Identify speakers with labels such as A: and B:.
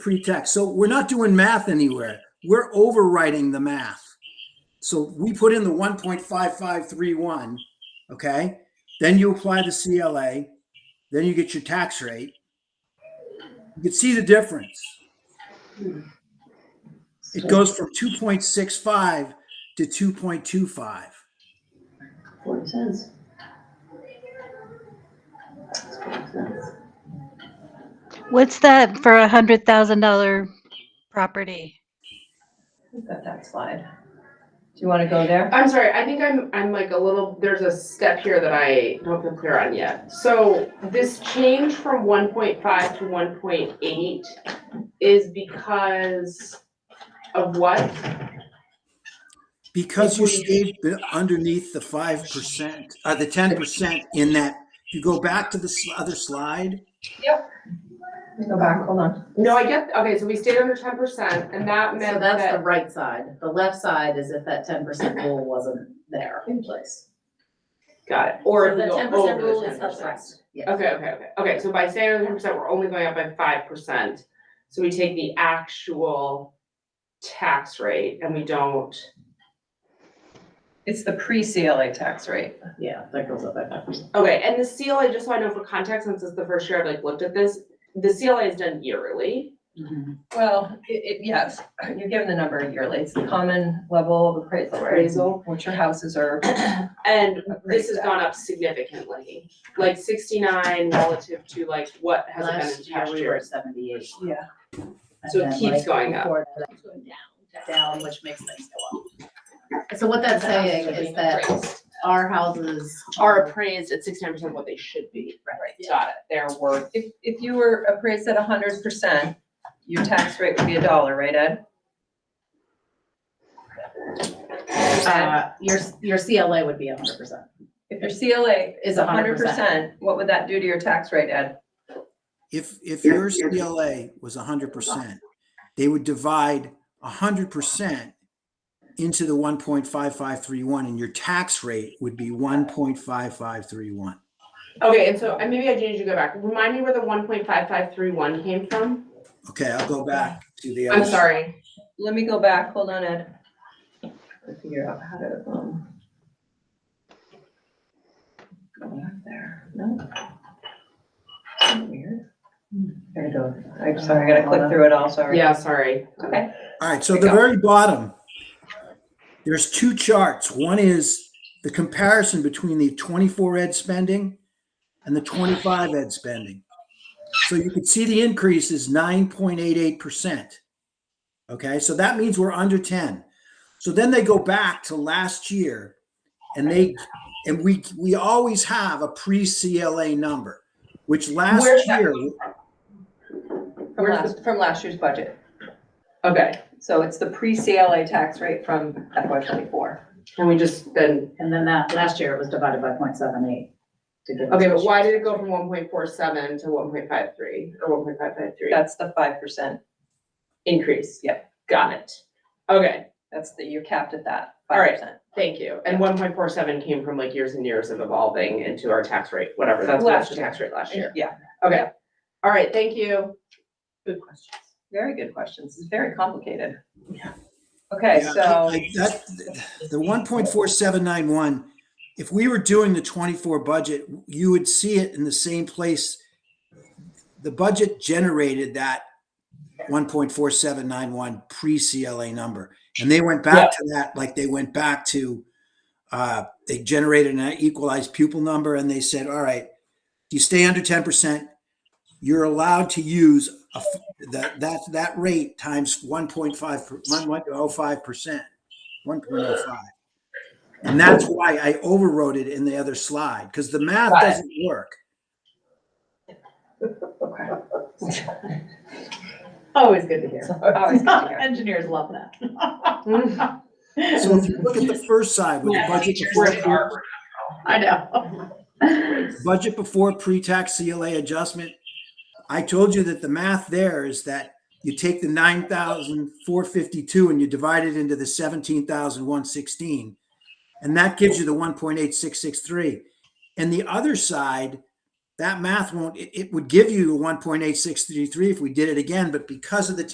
A: pre-tax. So we're not doing math anywhere. We're overwriting the math. So we put in the 1.5531, okay? Then you apply the CLA, then you get your tax rate. You can see the difference. It goes from 2.65 to 2.25.
B: Forty cents. It's forty cents.
C: What's that for a hundred thousand dollar property?
B: We've got that slide. Do you want to go there?
D: I'm sorry, I think I'm, I'm like a little, there's a step here that I don't feel clear on yet. So this change from one point five to one point eight is because of what?
A: Because you stayed be- underneath the 5%, or the 10% in that, if you go back to the s- other slide,
B: Go back, hold on.
D: No, I get, okay, so we stayed under ten percent and that
E: So
D: meant
E: that's the
D: that,
E: right side. The left side is if that ten percent rule wasn't there. In place.
D: got it, or
E: So
D: if we
E: the
D: go
E: ten
D: over
E: percent
D: the
E: rule
D: ten
E: is
D: percent.
E: uprest, yes.
D: Okay, okay, okay, okay, so by staying under ten percent, we're only going up by five percent. So we take the actual tax rate and we don't,
B: It's the pre-CLA tax rate.
E: Yeah, that goes up by five percent.
D: Okay, and the CLA, just so I know for context, since it's the first year I've like looked at this, the CLA is done yearly.
E: Mm-hmm.
B: Well, it, it, yes, you're given the number yearly. It's the common level of appraisal, right?
D: Appraisal.
B: Which your houses are.
D: And this has
B: appraised at.
D: gone up significantly, like sixty-nine relative to like what has it been
E: Last
D: in
E: year
D: past
E: we were at
D: years.
E: seventy-eight.
B: Yeah.
E: and
D: So it
E: then,
D: keeps
E: like,
D: going up.
E: before that, it went down, Down, which makes things go up. So what that's saying is that our houses
D: Are
E: are,
D: appraised at sixty-nine percent of what they should be.
E: Right.
D: Got it, they're worth,
B: If, if you were appraised at hundred percent, your tax rate would be a dollar, right, Ed?
E: uh, your, your CLA would be hundred percent.
B: If your CLA is
E: Is
B: a
E: 100%.
B: hundred percent, what would that do to your tax rate, Ed?
A: If, if your CLA was hundred percent, they would divide hundred percent into the one point five five three one and your tax rate would be one point five five three one.
D: okay, and so, and maybe I do need to go back, remind me where the one point five five three one came from?
A: Okay, I'll go back to the.
D: I'm
A: other-
D: sorry,
B: Let me go back, hold on, Ed. I'll Figure out how to, um. Go back there, no? Isn't it Weird. There you go. I'm sorry, I gotta click through it all, sorry.
D: yeah, sorry.
B: Okay,
A: All right, so
B: There
A: the
B: you go.
A: very bottom, there's two charts. One is the comparison between the twenty-four ed spending and the twenty-five ed spending. So you can see the increase is nine point eight eight percent. Okay, so that means we're under ten. So then they go back to last year and they, and we, we always have a pre-CLA number, which last
D: Where's that
A: year,
B: from
D: Where's
B: last, from last year's budget.
D: Okay,
B: So it's the pre-CLA tax rate from FY twenty-four.
D: and we just then,
E: And then that, last year it was divided by 0.78 to give. us-
D: okay, but why did it go from one point four seven to one point five three, or one point five five three?
B: That's the five percent,
D: Increase.
B: Yep.
D: Got it. Okay,
B: that's the, you're capped at that,
D: All
B: five
D: right.
B: percent.
D: thank you. And one point four seven came from like years and years of evolving into our tax rate, whatever, that's
B: Last
D: last
B: year.
D: tax rate last year.
B: Yeah,
D: Okay, all right, thank you.
E: Good questions.
B: very good questions, it's very complicated.
E: Yeah.
B: Okay,
A: Yeah,
B: so,
A: I- That, the one point four seven nine one, if we were doing the twenty-four budget, you would see it in the same place. The budget generated that one point four seven nine one pre-CLA number. And they went back to that, like they went back to, uh, they generated an equalized pupil number and they said, all right, you stay under ten percent, you're allowed to use a f that, that, that rate times 1.5, per- 1.05%, 1.05. And that's why I overwrote it in the other slide, because the math
D: Got it.
A: doesn't work.
B: okay.
E: Always good to hear.
B: Always good to hear.
E: Engineers love that.
A: So if you look at the first side with the
D: Yeah,
A: budget
D: teachers
A: before,
D: at
A: pre-
D: Harvard.
E: I know.
A: budget before pre-tax CLA adjustment, I told you that the math there is that you take the 9,452 and you divide it into the 17,116. And that gives you the 1.8663. And the other side, that math won't, it, it would give you one point eight six three three if we did it again, but because of the